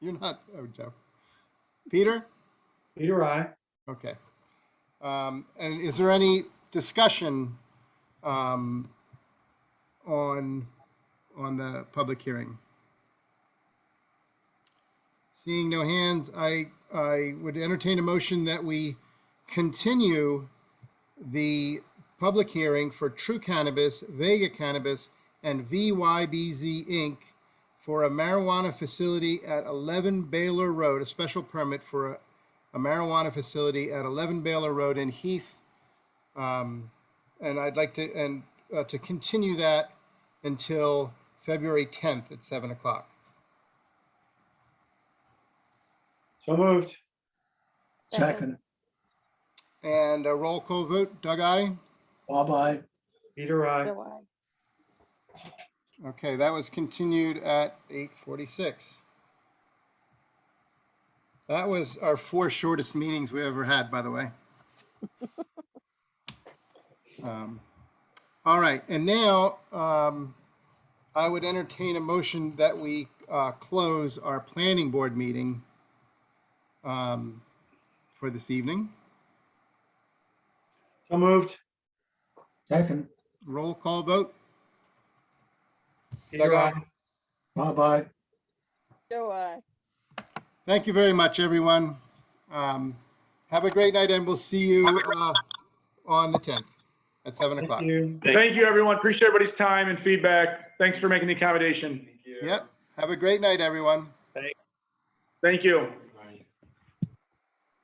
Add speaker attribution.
Speaker 1: You're not, oh, Joe. Peter?
Speaker 2: Peter, I.
Speaker 1: Okay. Um, and is there any discussion, um, on, on the public hearing? Seeing no hands, I, I would entertain a motion that we continue the public hearing for True Cannabis, Vega Cannabis, and VYBZ Inc. for a marijuana facility at 11 Baylor Road, a special permit for a a marijuana facility at 11 Baylor Road in Heath. Um, And I'd like to, and uh, to continue that until February 10th at 7 o'clock.
Speaker 2: So moved.
Speaker 3: Second,
Speaker 1: And a roll call vote, Doug, aye?
Speaker 3: bye-bye.
Speaker 2: Peter, I.
Speaker 4: So I-
Speaker 1: Okay, that was continued at 8:46. That was our four shortest meetings we ever had, by the way. Um, All right, and now um, I would entertain a motion that we uh, close our planning board meeting um, for this evening.
Speaker 2: So moved.
Speaker 3: Second,
Speaker 1: Roll call vote?
Speaker 2: Peter, I.
Speaker 3: bye-bye.
Speaker 4: So I.
Speaker 1: Thank you very much, everyone. Um, Have a great night, and we'll see you uh, on the 10th at 7 o'clock.
Speaker 2: Thank you.
Speaker 5: Thank you, everyone. Appreciate everybody's time and feedback. Thanks for making the accommodation.
Speaker 1: Yep, have a great night, everyone.
Speaker 5: Thank you.